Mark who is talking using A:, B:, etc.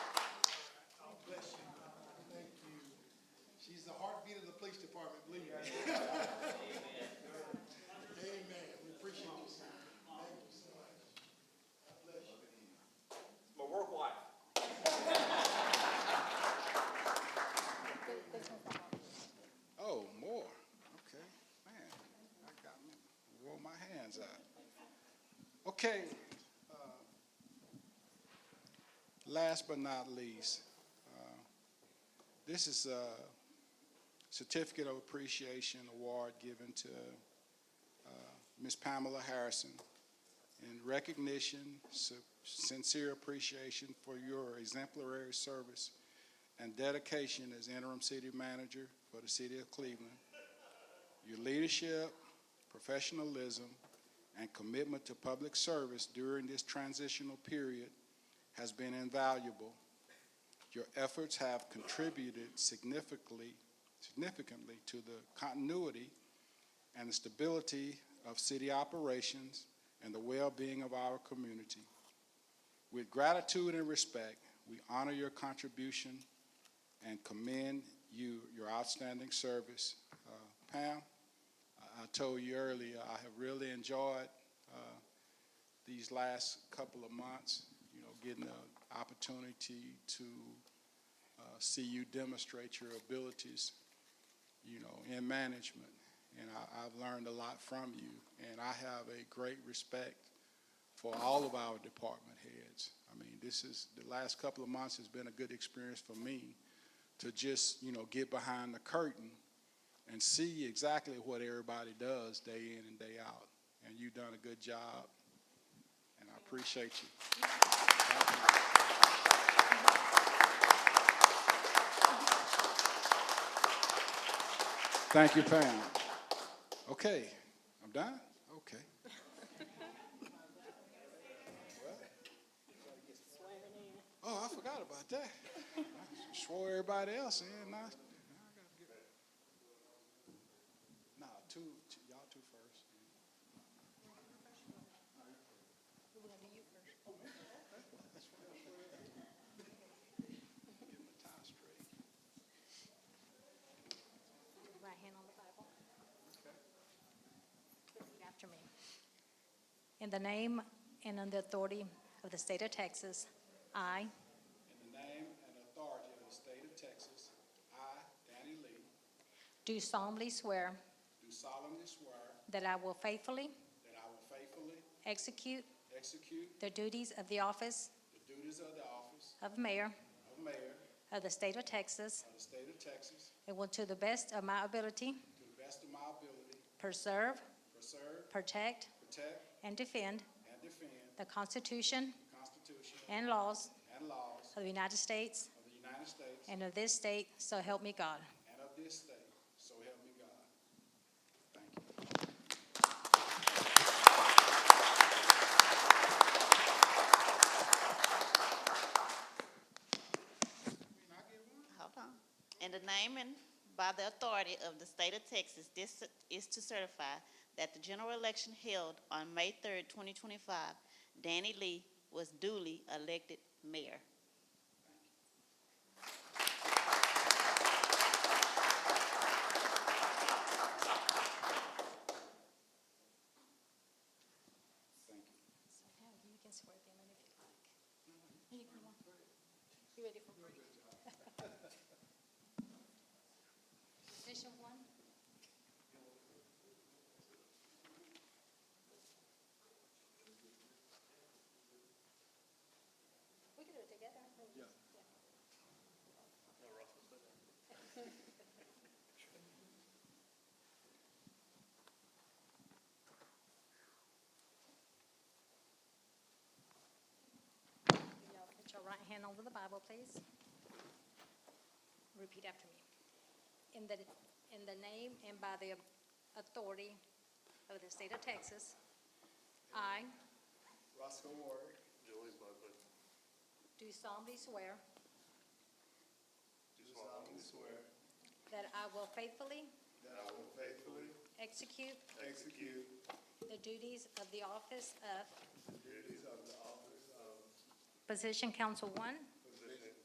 A: Oh, uh, but not least, uh, this is a certificate of appreciation award given to uh, Ms. Pamela Harrison in recognition, su- sincere appreciation for your exemplary service and dedication as interim city manager for the city of Cleveland. Your leadership, professionalism, and commitment to public service during this transitional period has been invaluable. Your efforts have contributed significantly, significantly to the continuity and the stability of city operations and the well-being of our community. With gratitude and respect, we honor your contribution and commend you, your outstanding service. Uh, Pam, I- I told you earlier, I have really enjoyed uh, these last couple of months, you know, getting the opportunity to uh, see you demonstrate your abilities, you know, in management. And I, I've learned a lot from you, and I have a great respect for all of our department heads. I mean, this is, the last couple of months has been a good experience for me to just, you know, get behind the curtain and see exactly what everybody does day in and day out. And you've done a good job, and I appreciate you. Thank you, Pam. Okay, I'm done? Okay. Oh, I forgot about that. I swore everybody else in. Now, now I gotta get. Nah, two, two, y'all two first. Get my tie straight.
B: Right hand on the Bible. Repeat After me. In the name and on the authority of the state of Texas, I
A: In the name and authority of the state of Texas, I, Danny Lee,
B: do solemnly swear
A: do solemnly swear
B: that I will faithfully
A: that I will faithfully
B: execute
A: execute
B: the duties of the office
A: the duties of the office
B: of mayor
A: of mayor
B: of the state of Texas
A: of the state of Texas
B: and will to the best of my ability
A: to the best of my ability,
B: preserve,
A: preserve,
B: protect,
A: protect,
B: and defend
A: and defend
B: the Constitution
A: the Constitution
B: and laws
A: and laws
B: of the United States
A: of the United States
B: and of this state, so help me God.
A: and of this state, so help me God. Thank you.
C: Hold on. In the name and by the authority of the state of Texas, this is to certify that the general election held on May third, twenty twenty-five, Danny Lee was duly elected mayor.
B: So now you can swear them in if you like. You ready for break? Position one. We can do it together. Y'all Put your right hand over the Bible, please. Repeat after me. In the, in the name and by the authority of the state of Texas, I
A: Roscoe Ward,
D: Julie's Ludwig,
B: do solemnly swear
D: do solemnly swear
B: that I will faithfully
D: that I will faithfully
B: execute
D: execute
B: the duties of the office of
D: the duties of the office of
B: Position Council One